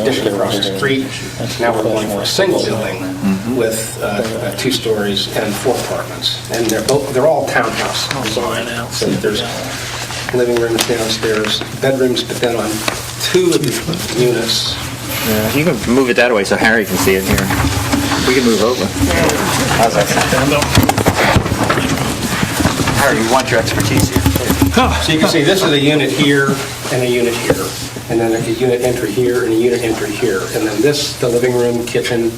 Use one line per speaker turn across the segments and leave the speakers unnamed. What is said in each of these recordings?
addition across the street. Now we're going for a single building with uh, uh, two stories and four apartments. And they're both, they're all townhouse design. So there's living rooms downstairs, bedrooms, but then on two of the units,
Yeah, You can move it that way so Harry can see it here. We can move over. How's that sound? Harry, we want your expertise here.
So you can see, this is a unit here and a unit here, and then a unit entry here and a unit entry here. And then this, the living room, kitchen,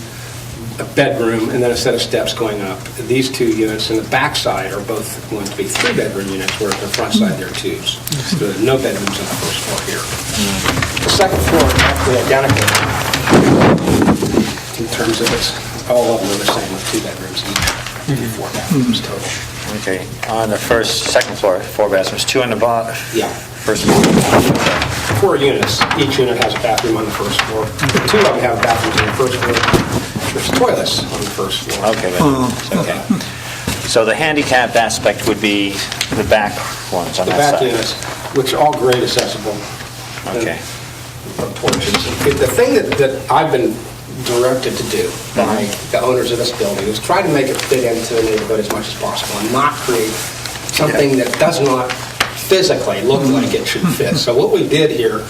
a bedroom, and then a set of steps going up. These two units in the backside are both going to be three-bedroom units, whereas the front side, they're twos. So there are no bedrooms on the first floor here. The second floor is actually identical in terms of it's, all of them are the same with two bedrooms each, and four bedrooms total.
Okay, on the first, second floor, four bathrooms, two on the bottom.
Yeah.
First floor.
four units. Each unit has a bathroom on the first floor. Two of them have bathrooms on the first floor. There's toilets on the first floor.
Okay, but- okay. So the handicap aspect would be the back ones on
The back
that side?
units, which are all grade accessible. and
Okay.
Porches. The thing that, that I've been directed to do by the owners of this building is try to make it fit into the neighborhood as much as possible and not create something that does not physically look like it should fit. So what we did here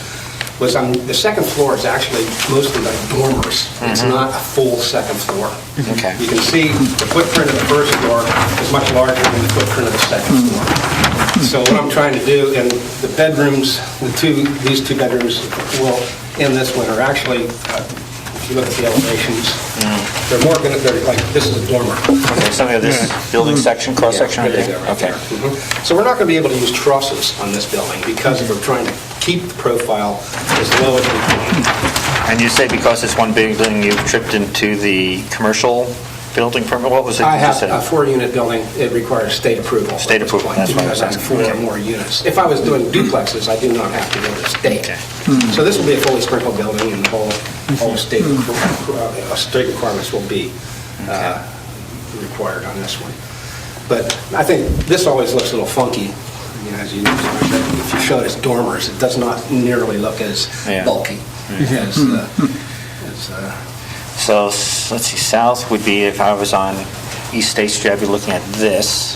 was, um, the second floor is actually mostly like dormers. It's not a full second floor.
Mm-hmm. Okay.
You can see the footprint of the first floor is much larger than the footprint of the second
Mm-hmm.
floor. So what I'm trying to do, and the bedrooms, the two, these two bedrooms will, in this one, are actually, uh, if you look at the elevations,
Mm-hmm.
they're more going to, they're like, this is a dormer.
Okay, Something of this building section, cross-section?
Yeah,
right
there you
there?
go, right
Okay.
there. Mhm. So we're not going to be able to use trusses on this building because we're trying to keep the profile as low as we can.
And you say because it's one building, you've tripped into the commercial building permit? What was it?
I
you
have
said?
a four-unit building, it requires state approval.
State approval, that's what I was
Because
asking,
I'm
okay.
Four or more units. If I was doing duplexes, I do not have to go to the state.
Okay.
So this will be a fully sprinkled building, and the whole, whole state, requ- uh, state requirements will be uh, required on this one. But I think this always looks a little funky, you know, as you, if you show it as dormers, it does not nearly look as
Yeah. Hmm.
bulky as, uh, as, uh,
So, s- let's see, south would be if I was on East State Street, I'd be looking at this.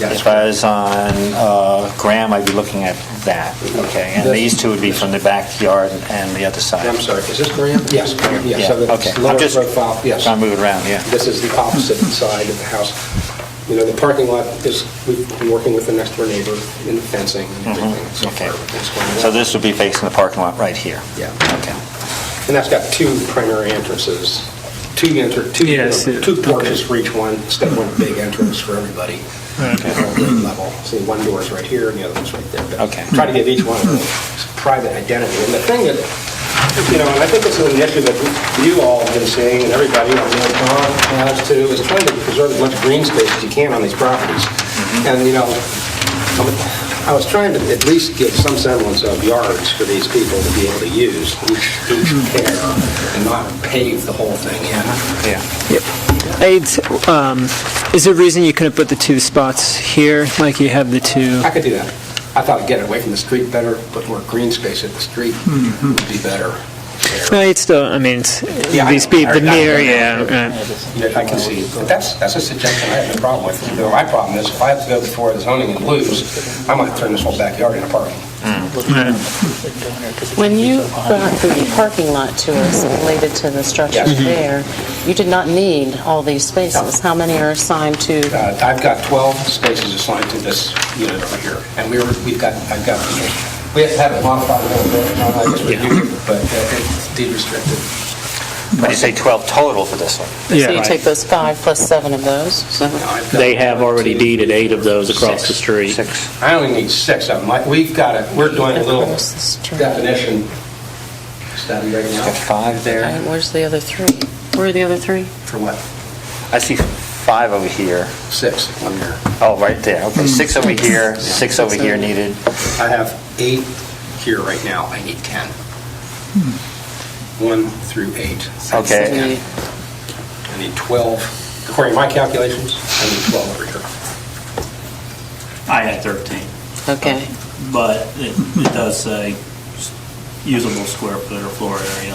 Yeah, that's
If I was on uh, Graham, I'd be looking at that, okay? And
This-
these two would be from the backyard and the other side.
I'm sorry, is this Graham? Yes, Graham, yes.
Yeah,
So
okay.
that's
I'm
lower
just
profile, yes.
Trying to move it around, yeah.
This is the opposite side of the house. You know, the parking lot is, we've been working with the next door neighbor in fencing and everything. so
Mm-hmm. Okay.
far, everything's going well.
So this would be facing the parking lot right here?
Yeah.
Okay.
And that's got two primary entrances, two enter, two,
Yes, it-
two porches for each one, instead of one big entrance for everybody. at all Level. See, one door is right here and the other one's right there. but
Okay.
Try to give each one a private identity. And the thing that, you know, and I think this is an issue that you all have been seeing and everybody, I know Tom has too, is trying to preserve as much green space as you can on these properties. And, you know, I was trying to at least give some semblance of yards for these people to be able to use each, each pair and not pave the whole thing in.
Yeah.
Aids, um, is there a reason you couldn't put the two spots here, like you have the two?
I could do that. I thought I'd get it away from the street better, put more green space at the street would be better.
No, it's still, I mean, it's,
Yeah, I
these be
know.
the
I- I-
mirror, yeah, right.
Yeah, I can see, but that's, that's a suggestion I have no problem with. You know, My problem is if I have to go before the zoning and lose, I might turn this whole backyard into parking.
When you brought the parking lot to us related to the structure
Yes. Mhm.
there, you did not need all these spaces. How many are assigned to,
Uh, I've got 12 spaces assigned to this unit over here, and we were, we've got, I've got, we have to have it modified a little bit, not like it's reviewed, but uh, it's deed restricted.
But you say 12 total for this one?
so you take those five plus seven of those? so-
Now, I've got
They have already
two,
deeded eight of those across the
Six.
street.
Six.
I only need six of them, I- we've got it, we're doing a little
Across the street.
definition study right
Got
now.
five
Okay,
there.
Where's the other three? Where are the other three?
For what?
I see five over here.
Six, one here.
Oh, right there.
Hmm.
Okay, six over here, six over here needed.
I have eight here right now, I need 10. One through eight.
Okay.
I need 12, according to my calculations, I need 12 over here.
I had 13,
Okay.
but it it does say usable square foot or floor area,